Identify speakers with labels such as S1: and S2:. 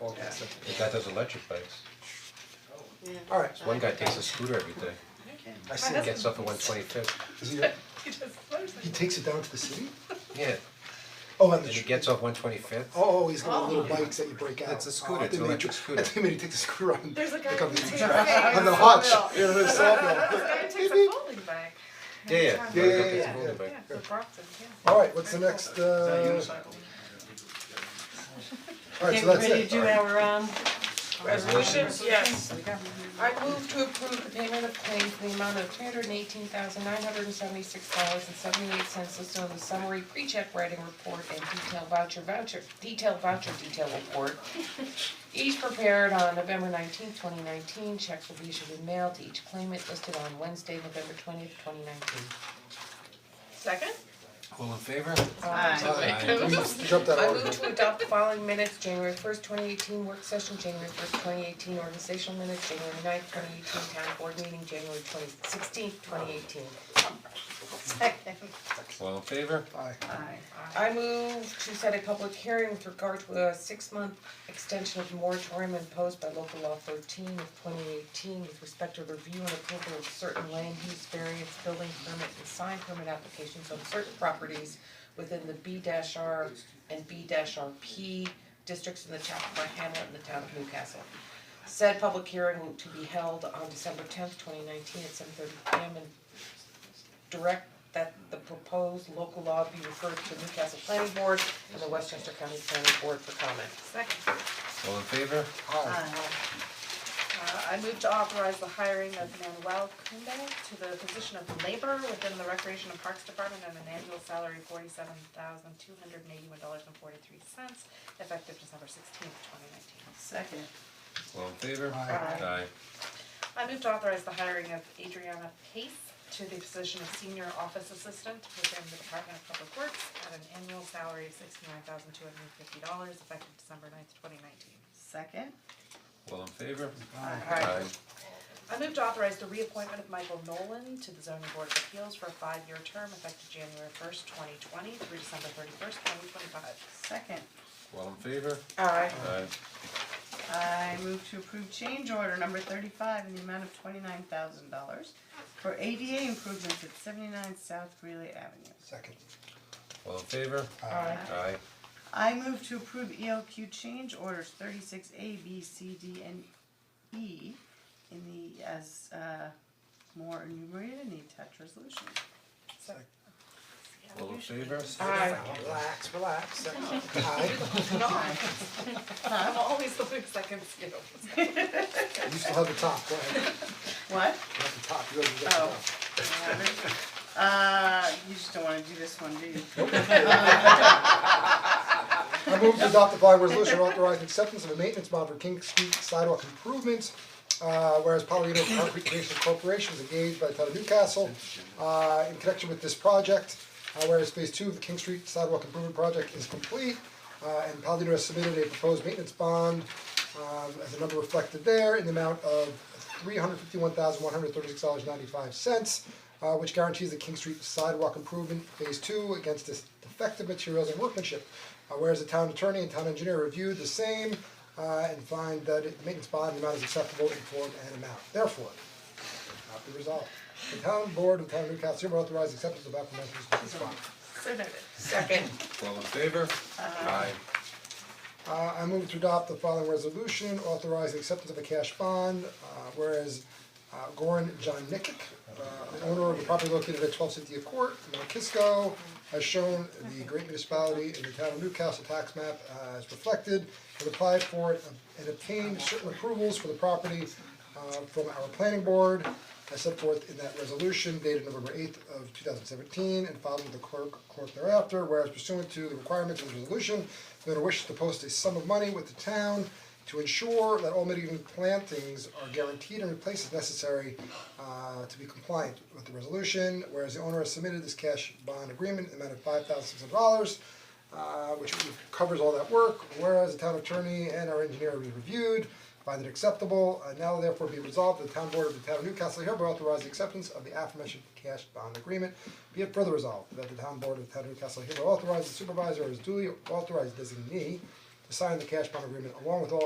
S1: all kinds of.
S2: The guy does electric bikes,
S3: Yeah.
S1: Alright,
S2: one guy takes a scooter every day,
S1: I
S2: he
S1: said,
S2: gets up at one twenty fifth,
S1: is he,
S4: He does motorcycle.
S1: he takes it down to the city?
S2: yeah,
S1: Oh, on
S2: and
S1: the.
S2: he
S1: tr-
S2: gets off one twenty fifth.
S1: Oh, oh, he's got the little bikes that you break out.
S2: It's a scooter,
S1: Oh, I
S2: it's an
S1: think they
S2: electric
S1: tr-
S2: scooter.
S1: I think they take the scooter on.
S4: There's a guy
S1: they
S4: who
S1: come
S4: takes a
S1: to-
S4: sawmill.
S1: On the hotch, yeah, the sawmill.
S4: This guy takes a folding bag.
S2: Yeah, yeah, yeah,
S4: Yeah,
S1: yeah,
S2: yeah,
S1: yeah,
S2: yeah,
S4: Yeah, the Brockton, yeah.
S1: Alright, what's the next, uh, alright, so that's it.
S5: our um
S4: Resolutions, yes.
S5: I move to approve the payment of claims in the amount of three hundred and eighteen thousand nine hundred and seventy-six dollars and seventy-eight cents listed on the summary pre-check writing report and detailed voucher voucher, detailed voucher detail report. Each prepared on November nineteenth, twenty nineteen, checks will be issued and mailed to each claimant listed on Wednesday, November twentieth, twenty nineteen.
S4: Second?
S2: All in favor?
S1: We jumped that
S5: I
S1: already.
S5: move to adopt the following minutes, January first, twenty eighteen, work session, January first, twenty eighteen, organizational minutes, January 9th, twenty eighteen, town board meeting, January twenty sixteenth, twenty eighteen.
S2: All in favor?
S1: Aye.
S5: I move to set a public hearing with regard to a six-month extension of moratorium imposed by local law thirteen of twenty eighteen with respect to review and approval of certain land use variance, building permit and sign permit applications on certain properties within the B R and B RP districts in the Chapel Hamlet and the town of Newcastle. Said public hearing to be held on December tenth, twenty nineteen at seven thirty P M in direct that the proposed local law be referred to Newcastle Planning Board and the Westchester County Planning Board for comment.
S4: Second.
S2: All in favor?
S4: Uh, I move to authorize the hiring of Manuel Kunde to the position of laborer within the Recreation and Parks Department at an annual salary of forty-seven thousand two hundred and eighty-one dollars and forty-three cents, effective December sixteenth, twenty nineteen.
S3: Second.
S2: All in favor?
S1: Aye.
S2: Aye.
S4: I move to authorize the hiring of Adriana Pace to the position of senior office assistant within the Department of Public Works at an annual salary of sixty-nine thousand two hundred and fifty dollars effective December 9th, twenty nineteen.
S3: Second.
S2: All in favor?
S5: Alright,
S4: I move to authorize the reappointment of Michael Nolan to the zoning board of appeals for a five-year term effective January first, twenty twenty through December thirty-first, twenty twenty-five.
S3: Second.
S2: All in favor?
S5: alright,
S2: Aye.
S3: I move to approve change order number thirty-five in the amount of twenty-nine thousand dollars for ADA improvements at seventy-nine South Greeley Avenue.
S1: Second.
S2: All in favor?
S5: alright,
S2: Aye.
S3: I move to approve ELQ change orders thirty-six A, B, C, D, and E in the, as, uh, more enumerated in the attached resolution.
S2: All in favor?
S5: alright,
S1: Relax, relax, second. Aye.
S4: No, I'm always the one second skill.
S1: You still have the top, go ahead.
S3: What?
S1: You have the top, you have the top.
S3: Oh. Uh, you just don't wanna do this one, do you?
S1: I move to adopt the following resolution authorizing acceptance of a maintenance bond for King Street sidewalk improvements. Uh, whereas Palomino Concrete Creation Corporation is engaged by the town of Newcastle, uh, in connection with this project. Uh, whereas phase two of the King Street sidewalk improvement project is complete, uh, and Palomino has submitted a proposed maintenance bond, um, as a number reflected there, in the amount of three hundred fifty-one thousand one hundred thirty-six dollars ninety-five cents, uh, which guarantees the King Street sidewalk improvement phase two against dis- defective materials and workmanship. Uh, whereas the town attorney and town engineer reviewed the same, uh, and find that it- the maintenance bond amount is acceptable in form and amount, therefore, not be resolved. The town board of the town of Newcastle hereby authorizes acceptance of aforementioned maintenance bond.
S5: second,
S2: All in favor? Aye.
S1: Uh, I move to adopt the following resolution, authorizing acceptance of a cash bond, uh, whereas uh, Goran John Nikic, uh, the owner of the property located at twelve Cynthia Court, Mount Kisco, has shown the great municipality in the town of Newcastle tax map uh, as reflected, has applied for it and obtained certain approvals for the property uh, from our planning board, as set forth in that resolution dated November eighth of two thousand seventeen and filed with the clerk clerk thereafter, whereas pursuant to the requirements of the resolution, the owner wishes to post a sum of money with the town to ensure that all mitigating plantings are guaranteed and replaced as necessary uh, to be compliant with the resolution, whereas the owner has submitted this cash bond agreement in the amount of five thousand six hundred dollars uh, which covers all that work, whereas the town attorney and our engineer we reviewed, find it acceptable, and now therefore be resolved, the town board of the town of Newcastle hereby authorize the acceptance of the aforementioned cash bond agreement. Be it further resolved, that the town board of the town of Newcastle hereby authorizes the supervisor as duly authorized designee to sign the cash bond agreement along with all